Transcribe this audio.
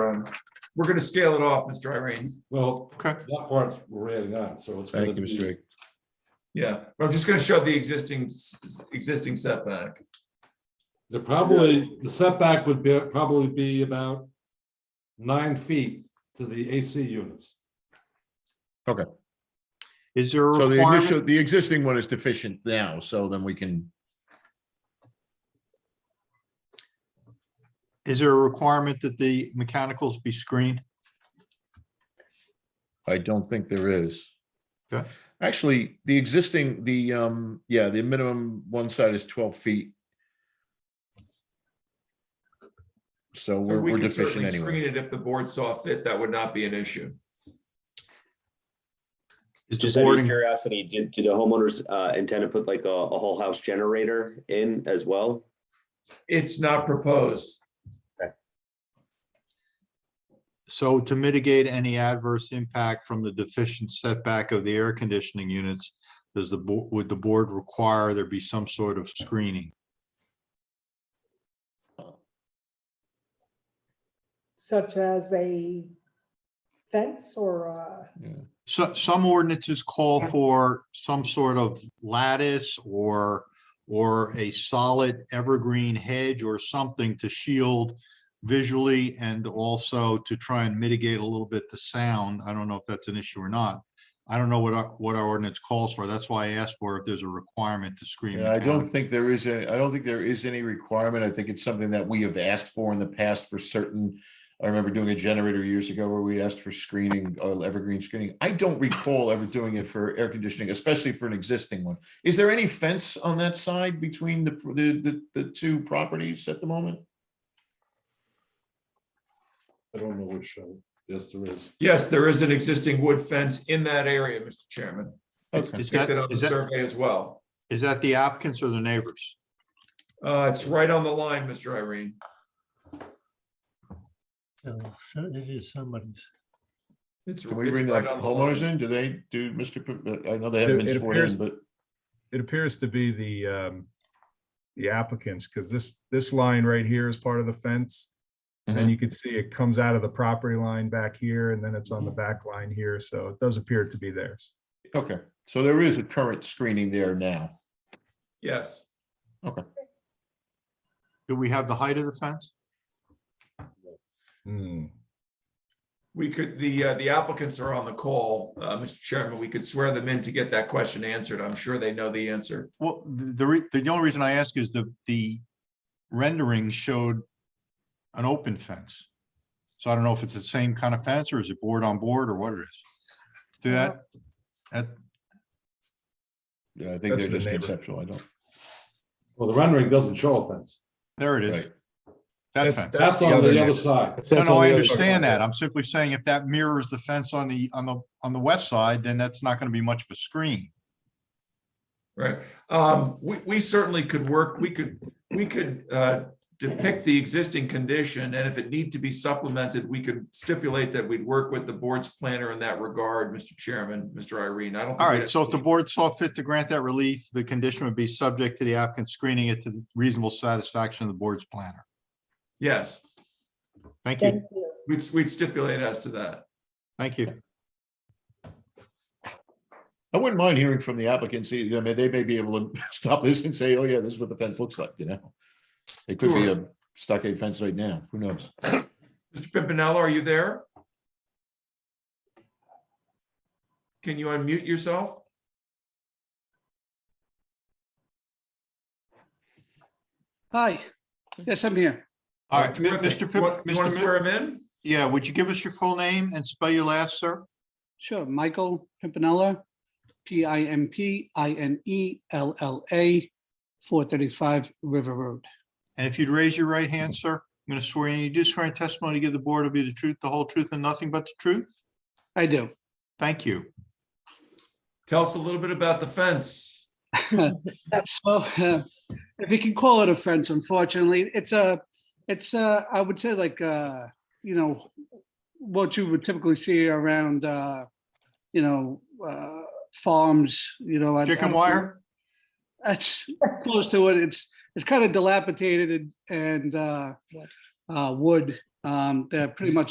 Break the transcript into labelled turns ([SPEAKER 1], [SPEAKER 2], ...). [SPEAKER 1] time. We're gonna scale it off, Mr. Irene.
[SPEAKER 2] Well,
[SPEAKER 3] Okay.
[SPEAKER 2] that part's really not, so it's.
[SPEAKER 3] Thank
[SPEAKER 2] gonna
[SPEAKER 3] you, Mr.
[SPEAKER 2] be-
[SPEAKER 3] Drake.
[SPEAKER 1] Yeah, but I'm just gonna show the existing, s- s- existing setback.
[SPEAKER 2] The probably, the setback would be, probably be about nine feet to the AC units.
[SPEAKER 4] Is there a
[SPEAKER 3] So the initial,
[SPEAKER 4] requirement?
[SPEAKER 3] the existing one is deficient now, so then we can,
[SPEAKER 4] Is there a requirement that the mechanicals be screened?
[SPEAKER 3] I don't think there is.
[SPEAKER 4] Okay.
[SPEAKER 3] Actually, the existing, the, um, yeah, the minimum one side is twelve feet. So
[SPEAKER 1] So
[SPEAKER 3] we're,
[SPEAKER 1] we
[SPEAKER 3] we're
[SPEAKER 1] could
[SPEAKER 3] deficient
[SPEAKER 1] certainly
[SPEAKER 3] anyway.
[SPEAKER 1] Screen it if the board saw fit, that would not be an issue.
[SPEAKER 4] Is the
[SPEAKER 5] Just out
[SPEAKER 4] board,
[SPEAKER 5] of
[SPEAKER 4] in-
[SPEAKER 5] curiosity, did, do the homeowners uh, intend to put like a, a whole house generator in as well?
[SPEAKER 1] It's not proposed.
[SPEAKER 4] so to mitigate any adverse impact from the deficient setback of the air conditioning units, does the, bo- would the board require there be some sort of screening?
[SPEAKER 6] Such as a fence or a,
[SPEAKER 4] So some ordinances call for some sort of lattice or, or a solid evergreen hedge or something to shield visually and also to try and mitigate a little bit the sound. I don't know if that's an issue or not. I don't know what our, what our ordinance calls for. That's why I asked for if there's a requirement to screen.
[SPEAKER 3] Yeah, I don't
[SPEAKER 4] metallic.
[SPEAKER 3] think there is, a- I don't think there is any requirement. I think it's something that we have asked for in the past for certain. I remember doing a generator years ago where we asked for screening, uh, evergreen screening. I don't recall ever doing it for air conditioning, especially for an existing one. Is there any fence on that side between the, the, the, the two properties at the moment?
[SPEAKER 2] I don't know which, uh, yes, there is.
[SPEAKER 1] Yes, there is an existing wood fence in that area, Mr. Chairman. It's
[SPEAKER 3] Okay.
[SPEAKER 4] Is that-
[SPEAKER 1] depicted on the
[SPEAKER 4] is that-
[SPEAKER 1] survey as well.
[SPEAKER 4] Is that the applicants or the neighbors?
[SPEAKER 1] Uh, it's right on the line, Mr. Irene.
[SPEAKER 7] So so Oh, it is somebody's.
[SPEAKER 1] It's
[SPEAKER 3] Can we
[SPEAKER 1] it's
[SPEAKER 3] bring the
[SPEAKER 1] right on line.
[SPEAKER 3] homeowners in? Do they, do Mr. P- uh, I know they haven't
[SPEAKER 8] It-
[SPEAKER 3] been
[SPEAKER 8] it
[SPEAKER 3] sworn in,
[SPEAKER 8] appears-
[SPEAKER 3] but
[SPEAKER 8] It appears to be the, um, the applicants, because this, this line right here is part of the fence.
[SPEAKER 3] Mhm.
[SPEAKER 8] And you can see it comes out of the property line back here and then it's on the back line here. So it does appear to be theirs.
[SPEAKER 3] okay. So there is a current screening there now.
[SPEAKER 1] Yes,
[SPEAKER 4] Do we have the height of the fence?
[SPEAKER 8] Hmm.
[SPEAKER 1] we could, the, uh, the applicants are on the call, uh, Mr. Chairman. We could swear them in to get that question answered. I'm sure they know the answer.
[SPEAKER 4] Well, the, the re- the only reason I ask is the, the rendering showed an open fence. So I don't know if it's the same kind of fence or is it board on board or what it is. Do that, that,
[SPEAKER 3] Yeah, I think
[SPEAKER 8] That's
[SPEAKER 3] they're
[SPEAKER 8] the
[SPEAKER 3] just
[SPEAKER 8] neighbor.
[SPEAKER 3] conceptual. I don't,
[SPEAKER 2] Well, the rendering doesn't show a fence.
[SPEAKER 4] there it is,
[SPEAKER 3] right.
[SPEAKER 4] that fence.
[SPEAKER 2] That's on the other side.
[SPEAKER 4] No, no, I understand that. I'm simply saying if that mirrors the fence on the, on the, on the west side, then that's not gonna be much of a screen.
[SPEAKER 1] Right. Um, we, we certainly could work, we could, we could, uh, depict the existing condition and if it need to be supplemented, we could stipulate that we'd work with the board's planner in that regard, Mr. Chairman, Mr. Irene. I don't. think
[SPEAKER 4] All
[SPEAKER 1] we'd
[SPEAKER 4] right,
[SPEAKER 1] have
[SPEAKER 4] so if
[SPEAKER 1] to-
[SPEAKER 4] the board saw fit to grant that relief, the condition would be subject to the applicant screening it to the reasonable satisfaction of the board's planner.
[SPEAKER 1] Yes,
[SPEAKER 4] Thank you,
[SPEAKER 6] thank you.
[SPEAKER 1] we'd, we'd stipulate as to that.
[SPEAKER 4] thank you.
[SPEAKER 3] I wouldn't mind hearing from the applicants. either. I mean, they may be able to stop this and say, oh yeah, this is what the fence looks like, you know? It could be a stockade fence right now. Who knows?
[SPEAKER 1] Mr. Pimpinella, are you there? Can you unmute yourself?
[SPEAKER 9] Hi, yes, I'm here.
[SPEAKER 4] All right, Mi-
[SPEAKER 1] Uh, Terrific.
[SPEAKER 4] Mr.
[SPEAKER 1] You want-
[SPEAKER 4] Pip,
[SPEAKER 1] You want to
[SPEAKER 4] Mr.
[SPEAKER 1] swear
[SPEAKER 4] Mi-
[SPEAKER 1] him in?
[SPEAKER 4] yeah, would you give us your full name and spell your last, sir?
[SPEAKER 9] Sure, Michael Pimpinella, P I M P I N E L L A, 435 River Road.
[SPEAKER 4] And if you'd raise your right hand, sir, I'm gonna swear in, you do swear in testimony, to give the board will be the truth, the whole truth and nothing but the truth?
[SPEAKER 9] I do.
[SPEAKER 4] Thank you.
[SPEAKER 1] Tell us a little bit about the fence.
[SPEAKER 9] So, uh, if you can call it a fence, unfortunately, it's a, it's a, I would say like, uh, you know, what you would typically see around, uh, you know, uh, farms, you know. I- I
[SPEAKER 4] Chicken
[SPEAKER 9] don't-
[SPEAKER 4] wire?
[SPEAKER 9] That's close to it. It's, it's kind of dilapidated and, uh, uh, wood. Um, they're pretty much